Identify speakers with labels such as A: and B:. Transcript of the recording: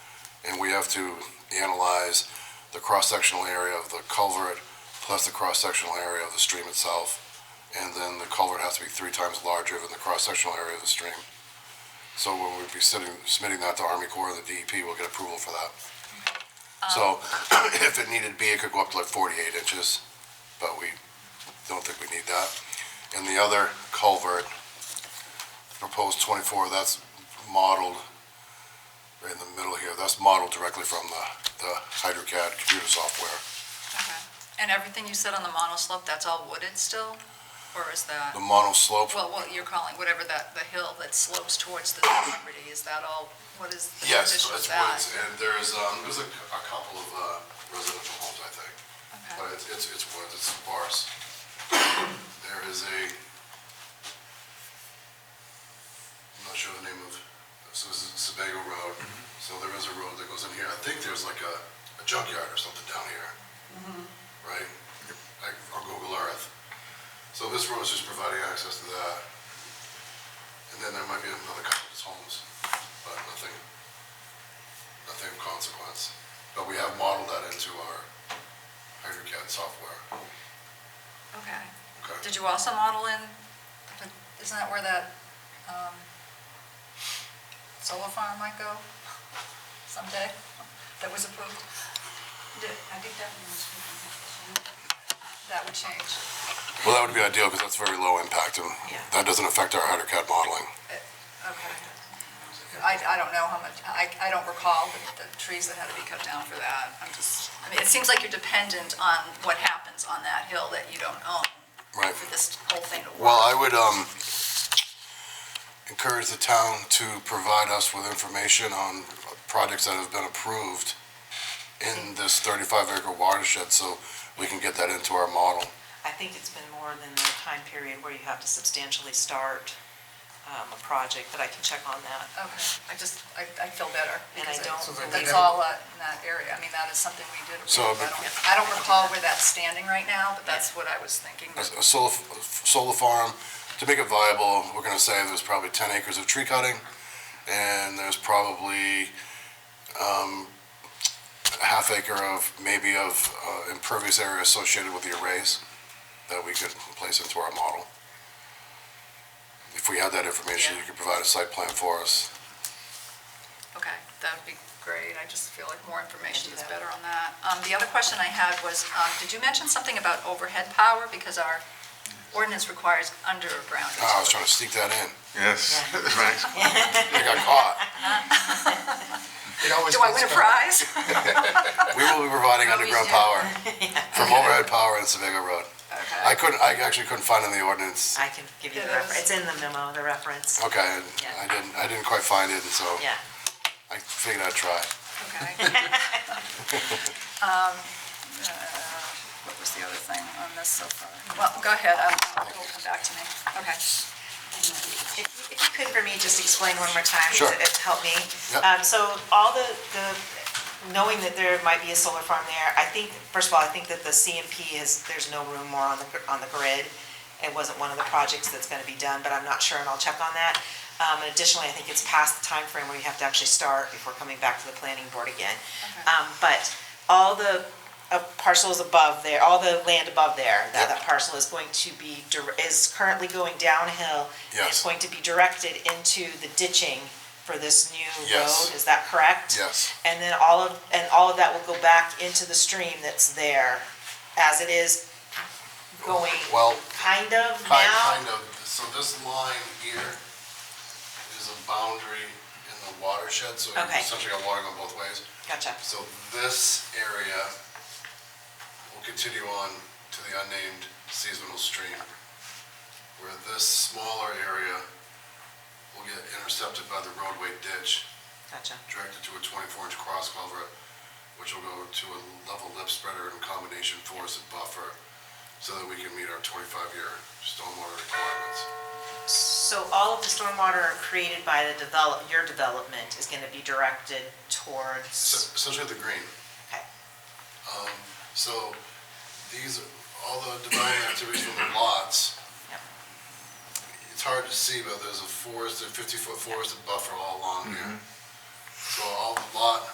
A: and we have to analyze the cross-sectional area of the culvert plus the cross-sectional area of the stream itself. And then the culvert has to be three times larger than the cross-sectional area of the stream. So when we'd be sitting, submitting that to Army Corps, the DEP will get approval for that. So if it needed be, it could go up to like forty-eight inches, but we don't think we need that. And the other culvert, proposed twenty-four, that's modeled right in the middle here, that's modeled directly from the, the HydroCAD computer software.
B: And everything you said on the monoslope, that's all wooded still? Or is that,
A: The mono slope,
B: well, what you're calling, whatever that, the hill that slopes towards the property, is that all, what is the
A: yes, it's
B: condition of that?
A: woods, and there's, um, there's a, a couple of, uh, residential homes, I think.
B: Okay.
A: But it's, it's, it's woods, it's sparse. There is a, I'm not sure the name of, so this is Sebago Road. So there is a road that goes in here. I think there's like a, a junkyard or something down here. Right? Like on Google Earth. So this road is just providing access to that. And then there might be another couple of homes, but nothing, nothing of consequence. But we have modeled that into our HydroCAD software.
B: Okay.
A: Okay.
B: Did you also model in, isn't that where that um, solar farm might go someday? That was approved? Did- I think that was. That would change.
A: Well, that would be ideal because that's very low impact and
B: Yeah.
A: that doesn't affect our HydroCAD modeling.
B: Okay. I, I don't know how much, I, I don't recall the, the trees that had to be cut down for that. I'm just, I mean, it seems like you're dependent on what happens on that hill that you don't own
A: Right.
B: for this whole thing to work.
A: Well, I would, um, encourage the town to provide us with information on projects that have been approved in this thirty-five acre watershed, so we can get that into our model.
C: I think it's been more than the time period where you have to substantially start um, a project, but I can check on that.
B: Okay, I just, I, I feel better.
C: And I
B: because
C: don't
B: it's-
C: believe-
B: That's all uh, in that area. I mean, that is something we did.
A: So,
B: approve. I
A: but-
B: don't- I don't recall where that's standing right now, but that's what I was thinking.
A: a a solar, f- solar farm, to make it viable, we're gonna say there's probably ten acres of tree cutting, and there's probably, um, a half acre of, maybe of, uh, impervious area associated with the arrays that we could place into our model. If we had that information, you could provide a site plan for us.
B: Okay, that would be great. I just feel like more information is better on that. Um, the other question I had was, um, did you mention something about overhead power? Because our ordinance requires underground.
A: Ah, I was trying to sneak that in,
D: Yes, thanks.
A: I got caught.
E: It always
B: Do I
E: goes
B: win a
E: back.
B: prize?
A: We will be providing
B: Oh, we
A: underground
B: should.
A: power from overhead power in Sevago Road. I
B: Okay.
A: couldn't, I actually couldn't find in the ordinance
C: I can give you the
B: Yeah, that
C: reference, it's in the memo, the reference.
A: Okay, and I
C: Yeah.
A: didn't, I didn't quite find it, and so
C: Yeah.
A: I figured I'd try.
B: Okay. Um, uh, What was the other thing on this so far? Well, go ahead, um, it'll come back to me. Okay.
C: If if you could for me, just explain one more time,
A: Sure.
C: to to help me.
A: Yep.
C: Um, So all the, the, knowing that there might be a solar farm there, I think, first of all, I think that the CMP is, there's no room more on the, gr- on the grid. It wasn't one of the projects that's gonna be done, but I'm not sure, and I'll check on that. Um, and additionally, I think it's past the time frame where you have to actually start before coming back to the planning board again. Um, but all the uh, parcels above there, all the land above there, that, that parcel is going to be, dir- is currently going downhill. and
A: Yes.
C: It's going to be directed into the ditching for this new
A: Yes.
C: road, is that correct?
A: Yes.
C: And then all of, and all of that will go back into the stream that's there as it is going,
A: Well,
C: kind of
A: kind,
C: now?
A: kind of, so this line here is a boundary in the watershed, so you
C: Okay.
A: essentially got water going both ways.
C: Gotcha,
A: So this area will continue on to the unnamed seasonal stream, where this smaller area will get intercepted by the roadway ditch,
C: gotcha,
A: directed to a twenty-four inch cross culvert, which will go to a level lip spreader and combination force and buffer, so that we can meet our twenty-five year stormwater requirements.
C: so all of the stormwater created by the develop, your development is gonna be directed towards?
A: Es- Essentially the green.
C: Okay.
A: Um, so these, all the dividing activities from the lots,
C: Yep.
A: it's hard to see,
C: Mm-hmm.
A: but there's a forested, fifty-foot forested buffer all along here. So all the lot